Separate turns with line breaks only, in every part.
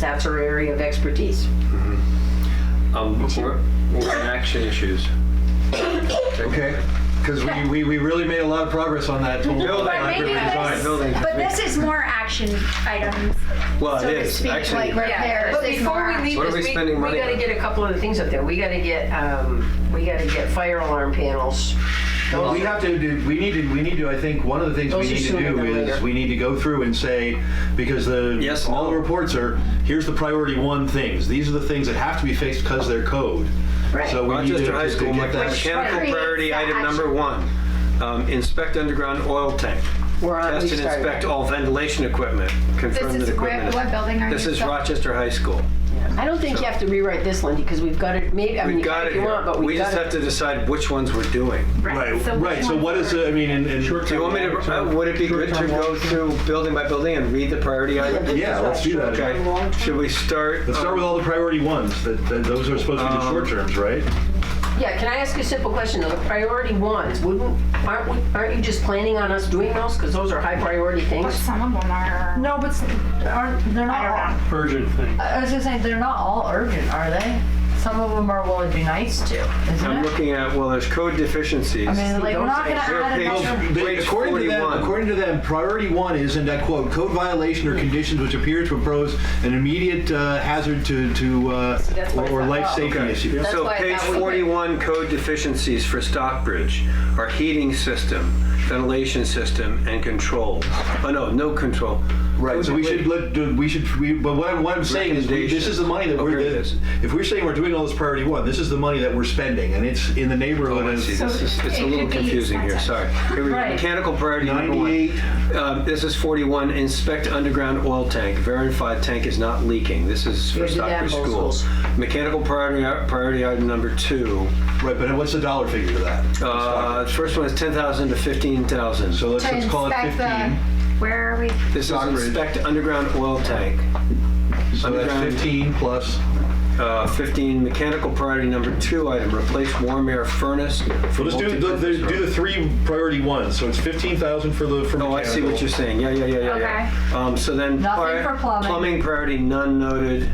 That's her area of expertise.
Um, we're, we're in action issues.
Okay, because we, we, we really made a lot of progress on that. whole
Building,
But maybe
design, building.
this, but this is more action items,
Well,
so
it
to
is,
speak,
actually.
like right there.
But
this is
before
more
we
action.
leave
What are
this,
we
we,
spending
we
money
gotta
on?
get a couple of things up there. We gotta get, um, we gotta get fire alarm panels.
Well, we have to do, we need to, we need to, I think, one of the things we
Those are
need to
sooner
do
than
is,
later.
we need to go through and say, because the,
Yes,
all the
no.
reports are, here's the priority one things. These are the things that have to be fixed because they're code.
Right.
So we need to
Rochester High
just to
School,
get that.
mechanical
creates
priority
the
item
action.
number one, um, inspect underground oil tank.
We're on, we
Test and
started.
inspect all ventilation equipment, confirm
This
that
is where,
equipment
what
is.
building are you?
This is
building?
Rochester High School.
I don't think you have to rewrite this, Lindy, because we've got it, maybe, I mean,
We've
you
got
can
it
if you want,
here.
but
We
we've
just
got
have
it.
to decide which ones we're doing.
Right,
so which
right, so
ones
what is,
were-
the- I mean, and, and,
Do you want me to, uh, would it be good to go through building by building and read the priority item?
yeah, let's do that.
Okay, should we start?
Let's start with all the priority ones, that, that those are supposed to be the
Um,
short terms, right?
Yeah, can I ask you a simple question though? The priority ones, wouldn't, aren't, we- aren't you just planning on us doing those? Because those are high priority
But
things.
Some of them are.
No, but s- aren't, they're
I
not
don't
all,
know.
urgent thing.
I was gonna say, they're not all urgent, are they? Some of them are, well, it'd be nice to,
I'm
isn't it?
looking at, well, there's code deficiencies.
I mean, like, we're not gonna
We're
add
page-
another,
They-
Page
according to them,
41.
according to them, priority one is, and I quote, code violation or conditions which appear to pose an immediate uh, hazard to, to uh,
that's why
or,
it's
or
not
life
up.
safety issue.
That's
So
why I
page
thought we-
41, code deficiencies for Stockbridge are heating system, ventilation system, and control. Oh, no, no control.
Right. So we should let do- we should we, but what I'm, what I'm saying is we, this is the money that
Oh,
we're
here it
that-
is.
if we're saying we're doing all this priority one, this is the money that we're spending, and it's in the neighborhood
Oh, I
of
see. This is, it's a
it
little
could be
confusing here, sorry.
expensive.
Here we go.
Right.
Mechanical priority number one.
98.
Um, This is 41, inspect underground oil tank, verify tank is not leaking. This is
Yeah,
for
do that
Stockbridge
in both
schools. Mechanical priority, priority item number two.
Right. But what's the dollar figure to that?
Uh, First one is 10,000 to 15,000.
So let's,
To
let's call it
inspect
15.
the- Where are we?
This is
Stockbridge.
inspect underground oil tank.
so
underground-
that's 15 plus.
Uh, 15, mechanical priority number two item, replace warm air furnace. for
Well, let's do the, the,
multi-purpose
do the three priority ones. So it's 15,000 for the for
room. Oh, I see what
mechanical.
you're saying. Yeah, yeah, yeah, yeah, yeah. Um, so then.
Nothing
pri-
for plumbing.
Plumbing priority, none noted.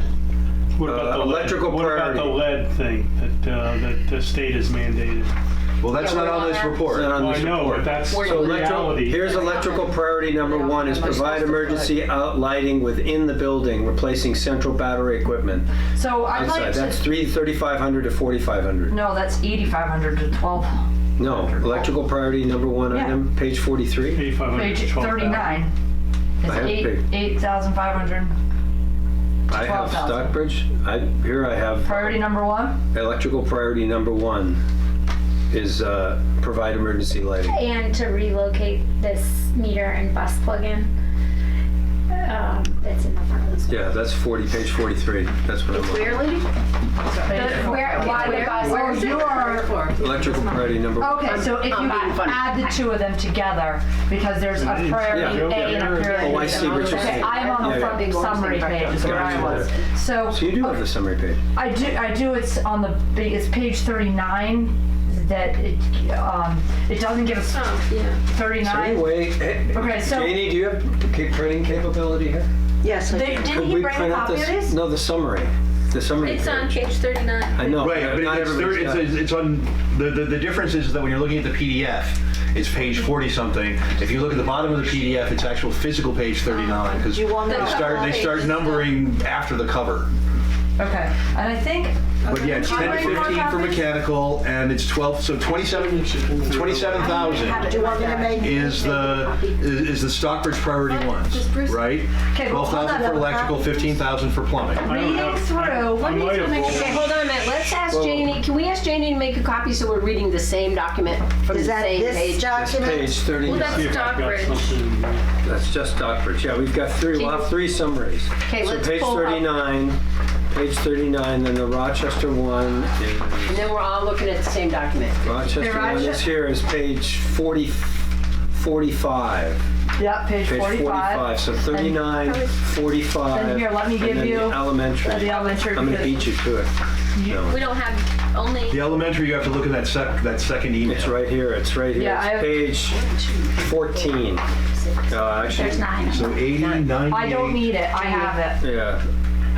What
Uh,
about the lead-
electrical
What about
priority.
the lead thing that, uh, that the state has mandated?
Well, that's
Yeah,
not
we're
on
on
this
our-
report.
Not on
Well,
this
I know,
report.
but that's the
Where
So electrical,
reality.
here's electrical priority number one is
Am I supposed
provide
to put-
emergency out lighting within the building, replacing central battery equipment.
so I'd
Outside,
like
that's
to,
three, 3,500 to 4,500.
no, that's eighty-five hundred to twelve,
No, electrical priority number one
Yeah.
item, page 43.
Eighty-five hundred
page
to twelve thousand.
thirty-nine.
I
It's
have
eight,
big-
eight thousand five hundred,
I have
12,000.
Stockbridge, I, here I have.
priority number one,
Electrical priority number one is uh, provide emergency lighting.
and to relocate this meter and bus plug-in um, that's in the front of the
Yeah, that's 40, page 43. That's what I'm on.
Where, Lindy?
page four.
Where, why the bus?
Where
Where's
you
it?
are-
Electrical priority number one.
Okay, so if you
I'm being funny.
add the two of them together, because there's a priority A
Yeah.
and a priority
Mm-hmm. Oh, I see what you're
Okay,
saying.
I'm on
Yeah,
the
yeah.
front summary page, is where I was. So,
So you do have the summary page.
I do, I do, it's on the, big- it's page thirty-nine, that it, um, it doesn't give us
So
thirty-nine.
anyway, eh,
Okay, so-
Janie, do you have ca- printing capability here?
Yes, I
They-
do.
Didn't
Could
he
we
bring a
print out
copy of
this-
this?
No, the summary, the summary.
It's on
page.
page 39.
I know.
Right,
not
but it's, there,
everybody's
it's,
got it.
it's, it's on the, the, the difference is that when you're looking at the PDF, it's page 40 something. If you look at the bottom of the PDF, it's actual physical page
Oh,
39 because they start they start numbering after the cover.
Okay, and I think,
But yeah, it's 10 to 15 for mechanical, and it's 12. So 27 27,000
do you want me to make?
is the is, is the Stockbridge priority ones, right?
Okay, well, hold
12,000
on.
for electrical, 15,000 for plumbing.
I don't have-
Reading through,
I
what
might have
needs
voted.
to
Okay, hold on a minute, let's ask Janie, can we ask Janie to make a copy so we're reading the same document from the
Is that
same
this
page?
It's
document?
Page 30,
that's-
See if I've got
Stockbridge.
something.
that's just Stockbridge. Yeah, we've got three, we'll have three summaries.
Okay,
So
let's
page
pull up,
39, page 39, then the Rochester one is.
and then we're all looking at the same document.
Rochester
The
one is
Rochester-
here is page 40, 45.
Yep, page
Page 45,
forty-five.
so 39, 45.
Then here, let me
and
give
then the
you-
Elementary.
uh, the elementary,
I'm gonna
because-
beat you to it.
We
No,
don't have only.
The elementary, you have to look at that sec, that second email.
It's right here, it's right here.
Yeah, I
It's
have-
page 14. Uh, Actually,
There's nine.
So 80, 98.
I don't need it, I have it.
yeah,